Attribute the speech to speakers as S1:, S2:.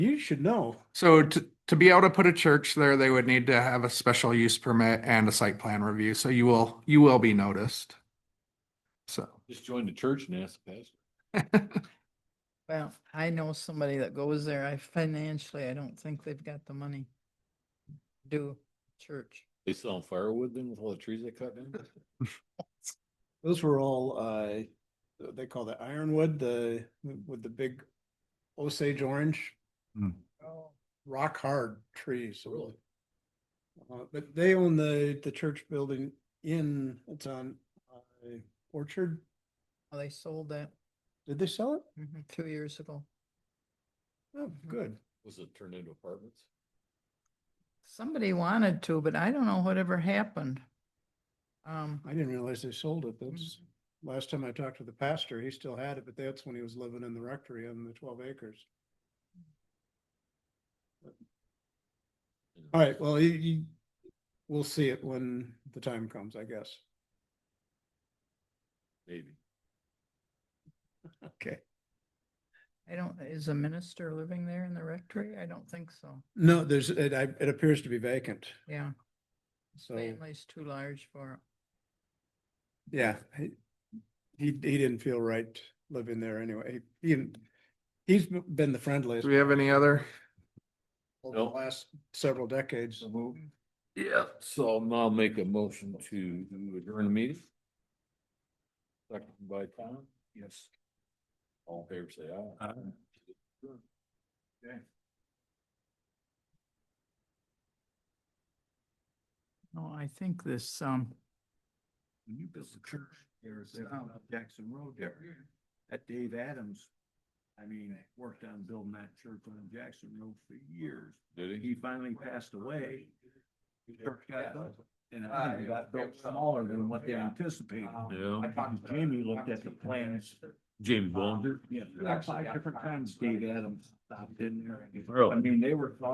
S1: You should know.
S2: So to, to be able to put a church there, they would need to have a special use permit and a site plan review, so you will, you will be noticed. So,
S3: Just join the church and ask the pastor.
S4: Well, I know somebody that goes there. I financially, I don't think they've got the money. to Do church.
S3: They sell firewood then with all the trees they cut down?
S1: Those were all, uh, they call that ironwood, the, with the big Osage orange,
S4: Oh.
S1: rock hard trees. Really? Uh, but they own the, the church building in, it's on uh, Orchard.
S4: Oh, They sold that
S1: Did they sell it?
S4: mhm, two years ago.
S1: Oh, good.
S3: Was it turned into apartments?
S4: Somebody wanted to, but I don't know whatever happened. Um, mm,
S1: I didn't realize they sold it. That's, last time I talked to the pastor, he still had it, but that's when he was living in the rectory on the twelve acres.
S3: You know,
S1: All right, well, you, you, we'll see it when the time comes, I guess.
S3: Maybe.
S1: Okay.
S4: I don't, is a minister living there in the rectory? I don't think so.
S1: No, there's, it, I, it appears to be vacant.
S4: Yeah,
S1: So,
S4: family's too large for, it.
S1: yeah, he, he, he didn't feel right living there anyway. He, didn't- he's been the friendliest
S2: do we have any other?
S1: over the
S3: No.
S1: last several decades.
S3: Yeah, so I'll make a motion to adjourn the meeting. Second by Tom? Yes. All in favor, say aye. Okay.
S4: no, I think this, um,
S5: when you built the church, there is
S4: Stop.
S5: up Jackson Road there. That Dave Adams, I mean, worked on building that church on Jackson Road for years.
S3: Did
S5: He
S3: he?
S5: finally passed away. The church got built, and I think it got built smaller than what they anticipated. um,
S3: Yeah.
S5: Jamie looked at the plans.
S3: Jamie Bond.
S5: Yeah, five different times Dave Adams stopped in there.
S3: Really?
S5: I mean, they were